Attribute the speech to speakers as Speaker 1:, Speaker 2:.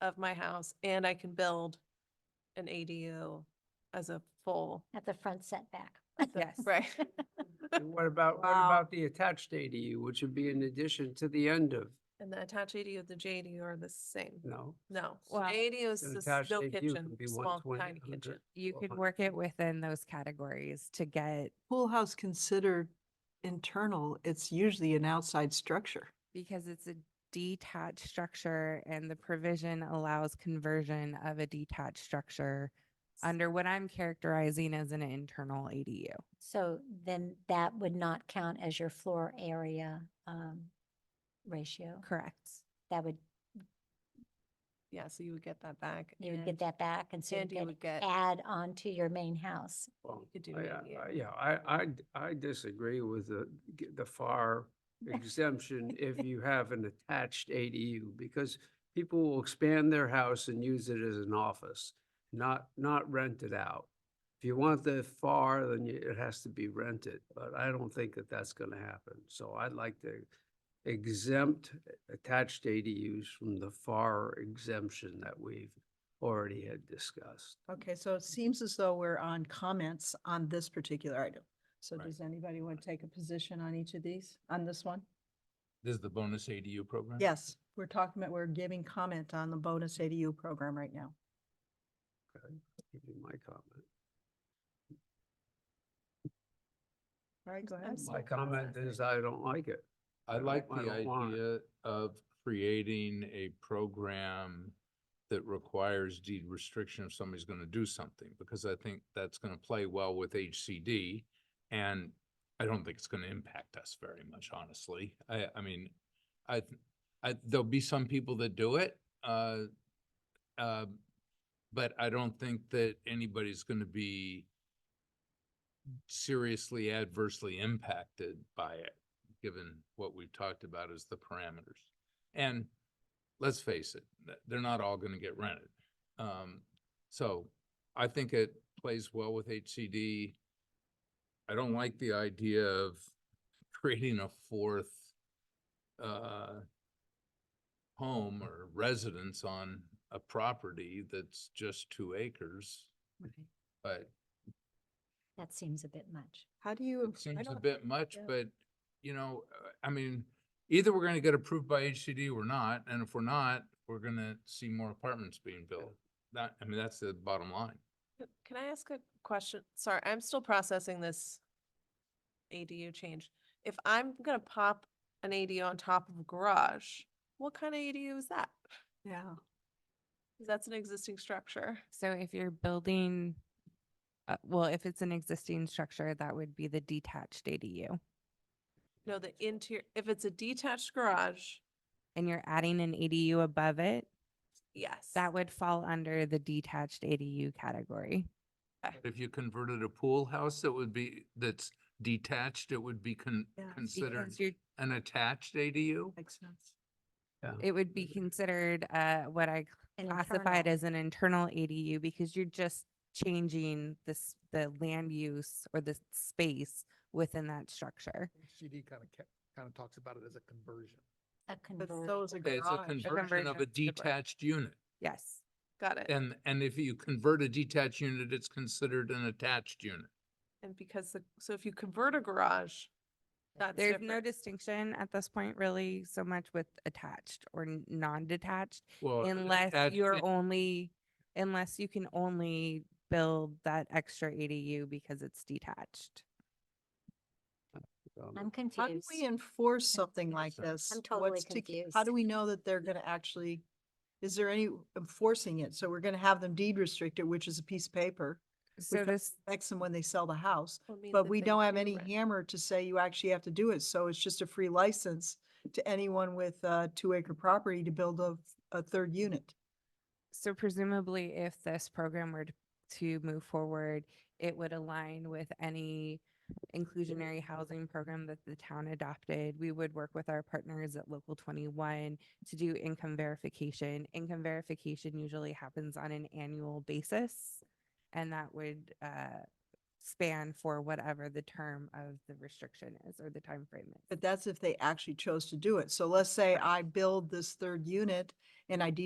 Speaker 1: of my house and I can build an ADU as a full.
Speaker 2: at the front setback.
Speaker 3: Yes.
Speaker 1: Right.
Speaker 4: And what about, what
Speaker 3: Wow.
Speaker 4: about the attached ADU, which would be in addition to the end of,
Speaker 1: And the attached ADU, the JDU are the same.
Speaker 4: no?
Speaker 1: No,
Speaker 3: Well,
Speaker 1: ADU is
Speaker 4: an
Speaker 1: just
Speaker 4: attached
Speaker 1: no
Speaker 4: ADU
Speaker 1: kitchen,
Speaker 4: can be
Speaker 1: small
Speaker 4: 120,
Speaker 1: tiny
Speaker 4: 100.
Speaker 1: kitchen.
Speaker 3: You
Speaker 4: Well,
Speaker 3: could
Speaker 4: hun-
Speaker 3: work it within those categories to get,
Speaker 5: pool house considered internal, it's usually an outside structure.
Speaker 3: because it's a detached structure and the provision allows conversion of a detached structure under what I'm characterizing as an internal ADU.
Speaker 2: So then that would not count as your floor area um, ratio.
Speaker 3: Correct.
Speaker 2: That would,
Speaker 1: Yeah, so you would get that back.
Speaker 2: you would
Speaker 1: and
Speaker 2: get that back and so you
Speaker 1: and you
Speaker 2: could
Speaker 1: would get-
Speaker 2: add on to your main house.
Speaker 4: Well,
Speaker 1: could do
Speaker 4: I-
Speaker 1: it,
Speaker 4: I-
Speaker 1: yeah.
Speaker 4: I- Yeah, I, I, d- I disagree with the, g- the FAR exemption if you have an attached ADU, because people will expand their house and use it as an office, not, not rent it out. If you want the FAR, then you- it has to be rented, but I don't think that that's gonna happen. So I'd like to exempt attached ADUs from the FAR exemption that we've already had discussed.
Speaker 5: Okay, so it seems as though we're on comments on this particular item. So
Speaker 6: Right.
Speaker 5: does anybody want to take a position on each of these, on this one?
Speaker 6: This is the bonus ADU program?
Speaker 5: Yes, we're talking about, we're giving comment on the bonus ADU program right now.
Speaker 4: Give you my comment.
Speaker 5: All right, go
Speaker 1: I'm
Speaker 5: ahead.
Speaker 1: so
Speaker 4: My
Speaker 1: glad
Speaker 4: comment
Speaker 1: that-
Speaker 4: is I don't like it. I
Speaker 6: I like
Speaker 4: don't- I
Speaker 6: the
Speaker 4: don't want it.
Speaker 6: idea of creating a program that requires deed restriction if somebody's gonna do something, because I think that's gonna play well with HCD. And I don't think it's gonna impact us very much, honestly. I, I mean, I, th- I, there'll be some people that do it, uh, uh, but I don't think that anybody's gonna be seriously adversely impacted by it given what we've talked about as the parameters. And let's face it, th- they're not all gonna get rented. Um, so I think it plays well with HCD. I don't like the idea of creating a fourth, uh, home or residence on a property that's just two acres,
Speaker 2: Right.
Speaker 6: but
Speaker 2: That seems a bit much.
Speaker 5: How do you?
Speaker 6: it seems a
Speaker 5: don't-
Speaker 6: bit much,
Speaker 5: yeah.
Speaker 6: but, you know, uh, I mean, either we're gonna get approved by HCD or not, and if we're not, we're gonna see more apartments being built. That, I mean, that's the bottom line.
Speaker 1: Can I ask a question? Sorry, I'm still processing this ADU change. If I'm gonna pop an ADU on top of a garage, what kind of ADU is that?
Speaker 5: Yeah.
Speaker 1: 'Cause That's an existing structure.
Speaker 3: So if you're building, uh, well, if it's an existing structure, that would be the detached ADU.
Speaker 1: No, the interior, if it's a detached garage,
Speaker 3: And you're adding an ADU above it,
Speaker 1: yes.
Speaker 3: that would fall under the detached ADU category.
Speaker 6: If you converted a pool house that would be, that's detached, it would be con-
Speaker 5: Yeah.
Speaker 6: considered
Speaker 3: Because you're
Speaker 6: an attached ADU?
Speaker 5: Makes sense.
Speaker 3: It would be considered uh, what I
Speaker 2: An
Speaker 3: classified
Speaker 2: internal.
Speaker 3: as an internal ADU because you're just changing this, the land use or the space within that structure.
Speaker 7: HGD kind of, kind of talks about it as a conversion.
Speaker 2: A
Speaker 5: But
Speaker 2: conversion.
Speaker 5: so is a
Speaker 6: Okay, It's a
Speaker 5: garage.
Speaker 6: conversion of
Speaker 3: conversion
Speaker 6: a
Speaker 3: of the garage.
Speaker 6: detached unit.
Speaker 3: Yes.
Speaker 1: Got it.
Speaker 6: And, and if you convert a detached unit, it's considered an attached unit.
Speaker 1: And because the, so if you convert a garage, that's
Speaker 3: There's no
Speaker 1: different.
Speaker 3: distinction at this point really so much with attached or n- non-detached
Speaker 6: Well, an
Speaker 3: unless
Speaker 6: attached
Speaker 3: you're only, unless you can only build that extra ADU because it's detached.
Speaker 4: Um,
Speaker 2: I'm
Speaker 5: How do
Speaker 2: confused.
Speaker 5: we enforce something like this?
Speaker 2: I'm totally
Speaker 5: What's to k- How do
Speaker 2: confused.
Speaker 5: we know that they're gonna actually, is there any enforcing it? So we're gonna have them deed restricted, which is a piece of paper.
Speaker 3: So
Speaker 5: got-
Speaker 3: this,
Speaker 5: Affects them when they sell the house,
Speaker 1: Well, it means
Speaker 5: but
Speaker 1: that
Speaker 5: we
Speaker 1: they
Speaker 5: don't have
Speaker 1: do
Speaker 5: any
Speaker 1: rent.
Speaker 5: hammer to say you actually have to do it. So it's just a free license to anyone with a two acre property to build a, a third unit.
Speaker 3: so presumably if this program were t- to move forward, it would align with any inclusionary housing program that the town adopted. We would work with our partners at Local 21 to do income verification. Income verification usually happens on an annual basis. And that would uh, span for whatever the term of the restriction is or the time frame is.
Speaker 5: But that's if they actually chose to do it. So let's say I build this third unit and I deed